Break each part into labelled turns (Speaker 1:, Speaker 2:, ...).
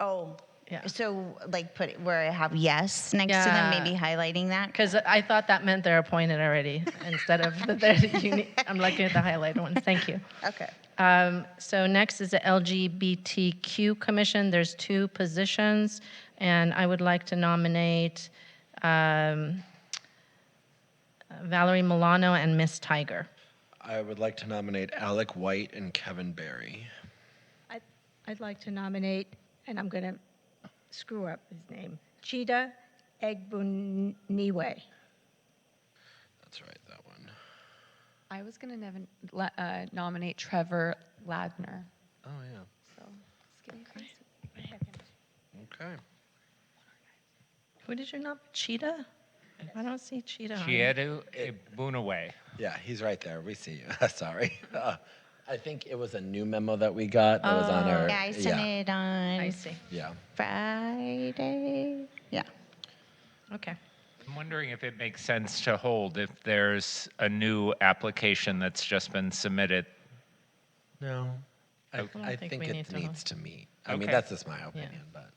Speaker 1: Oh.
Speaker 2: Yeah.
Speaker 1: So like put it where I have yes next to them,
Speaker 2: Yeah.
Speaker 1: maybe highlighting that.
Speaker 2: Because I thought that meant they're appointed already instead of that they're unique. I'm looking at the highlighted ones. Thank you.
Speaker 1: Okay.
Speaker 2: Um, so next is the LGBTQ Commission. There's two positions, and I would like to nominate um, Valerie Milano and Miss Tiger.
Speaker 3: I would like to nominate Alec White and Kevin Barry.
Speaker 4: I- I'd like to nominate, and I'm going to screw up his name, Chida Egbuniwe.
Speaker 3: That's right, that one.
Speaker 5: I was gonna nev- le- uh, nominate Trevor Ladner.
Speaker 3: Oh, yeah.
Speaker 5: So just give me a second.
Speaker 3: Okay.
Speaker 2: Who did you nominate? Cheetah? I don't see Cheetah. on there.
Speaker 6: Chiedu Ibunaway.
Speaker 3: Yeah, he's right there. We see you. Sorry. Uh, I think it was a new memo that we got that was on our.
Speaker 1: Yeah, I sent
Speaker 3: yeah,
Speaker 1: it on
Speaker 2: I see.
Speaker 3: yeah.
Speaker 1: Friday. Yeah.
Speaker 2: Okay.
Speaker 6: I'm wondering if it makes sense to hold if there's a new application that's just been submitted.
Speaker 3: No. I,
Speaker 2: don't
Speaker 3: I
Speaker 2: think
Speaker 3: think
Speaker 2: we
Speaker 3: it
Speaker 2: need to
Speaker 3: needs to meet. I mean,
Speaker 6: Okay.
Speaker 3: that's just my opinion, but.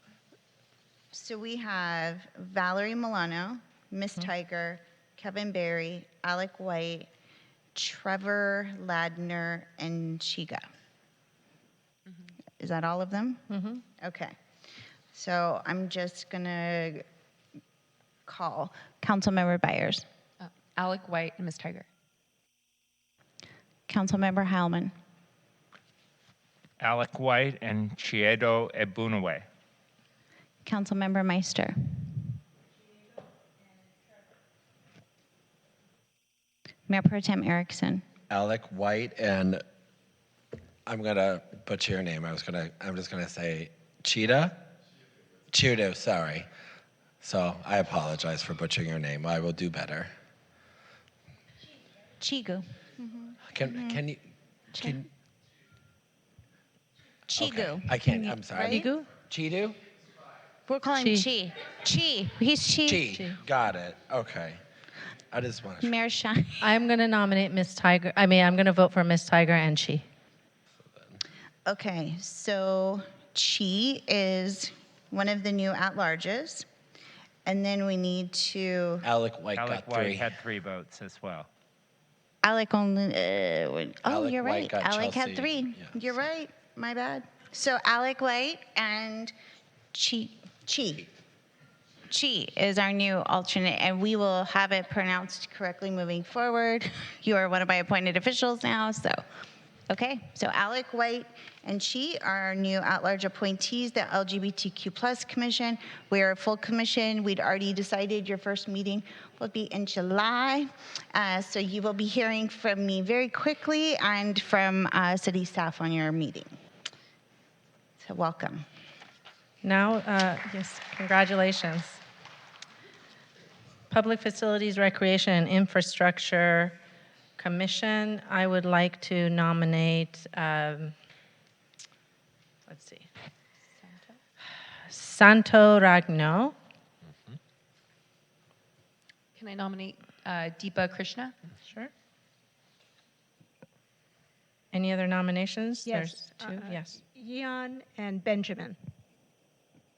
Speaker 1: So we have Valerie Milano, Miss Tiger, Kevin Barry, Alec White, Trevor Ladner, and Chiga. Is that all of them? Mm-hmm. Okay. So I'm just gonna call Councilmember Byers,
Speaker 5: Uh, Alec White and Miss Tiger.
Speaker 1: Councilmember Heilman,
Speaker 6: Alec White and Chiedo e Ibunaway.
Speaker 1: Councilmember Meister, Mayor Pro Tem Erickson.
Speaker 3: Alec White and I'm gonna butcher your name. I was gonna. I'm just gonna say Cheetah. Chudo. Sorry. So I apologize for butchering your name. I will do better.
Speaker 1: Chigu.
Speaker 3: Can can you? Can,
Speaker 1: Chigu.
Speaker 3: okay. I can't. I'm sorry.
Speaker 1: right?
Speaker 2: Chigu?
Speaker 3: Chidu.
Speaker 1: We're calling Chi. Chi. He's Chi.
Speaker 3: Chi. Got it. Okay. I just want to.
Speaker 1: Mayor Shine.
Speaker 2: I'm going to nominate Miss Tiger. I mean, I'm going to vote for Miss Tiger and she.
Speaker 1: Okay, so Chi is one of the new at-larges. And then we need to,
Speaker 3: Alec White
Speaker 6: Alec
Speaker 3: got three.
Speaker 6: White had three votes as well.
Speaker 1: Alec only, uh, wait, oh,
Speaker 3: Alec
Speaker 1: you're
Speaker 3: White
Speaker 1: right.
Speaker 3: got
Speaker 1: Alec had
Speaker 3: Chelsea.
Speaker 1: three.
Speaker 3: Yeah,
Speaker 1: You're right, my bad. So Alec White and Chi, Chi. Chi is our new alternate, and we will have it pronounced correctly moving forward. You are one of my appointed officials now, so, okay. So Alec White and Chi are our new at-large appointees, the LGBTQ plus commission. We are a full commission. We'd already decided your first meeting will be in July. Uh, So you will be hearing from me very quickly and from uh, city staff on your meeting. So welcome.
Speaker 2: Now, uh, yes, congratulations. Public Facilities, Recreation, and Infrastructure Commission, I would like to nominate, um, let's see. Santo Ragno.
Speaker 5: Can I nominate uh, Deepa Krishna?
Speaker 2: Sure. Any other nominations?
Speaker 4: Yes,
Speaker 2: There's two,
Speaker 4: uh, uh,
Speaker 2: yes.
Speaker 4: Jan and Benjamin.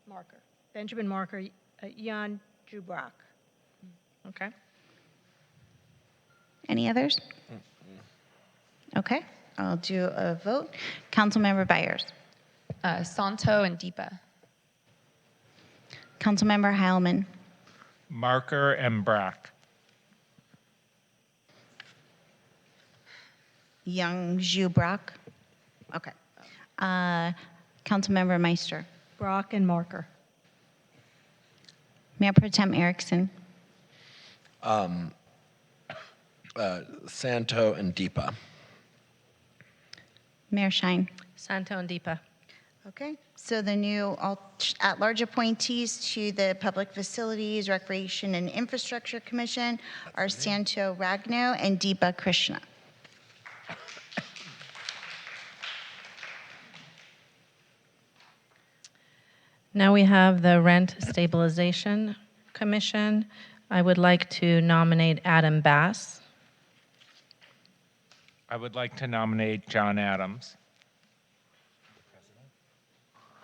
Speaker 5: Marker.
Speaker 4: Benjamin Marker, uh, Jan Jubrock.
Speaker 2: Okay.
Speaker 1: Any others? Okay, I'll do a vote. Councilmember Byers,
Speaker 5: Uh, Santo and Deepa.
Speaker 1: Councilmember Heilman,
Speaker 6: Marker and Brock.
Speaker 1: Young Zhu Brock. Okay. Uh, Councilmember Meister,
Speaker 4: Brock and Marker.
Speaker 1: Mayor Pro Tem Erickson,
Speaker 3: Santo and Deepa.
Speaker 1: Mayor Shine.
Speaker 2: Santo and Deepa.
Speaker 1: Okay, so the new alt- at-large appointees to the Public Facilities, Recreation, and Infrastructure Commission are Santo Ragno and Deepa Krishna.
Speaker 2: Now we have the Rent Stabilization Commission. I would like to nominate Adam Bass.
Speaker 6: I would like to nominate John Adams.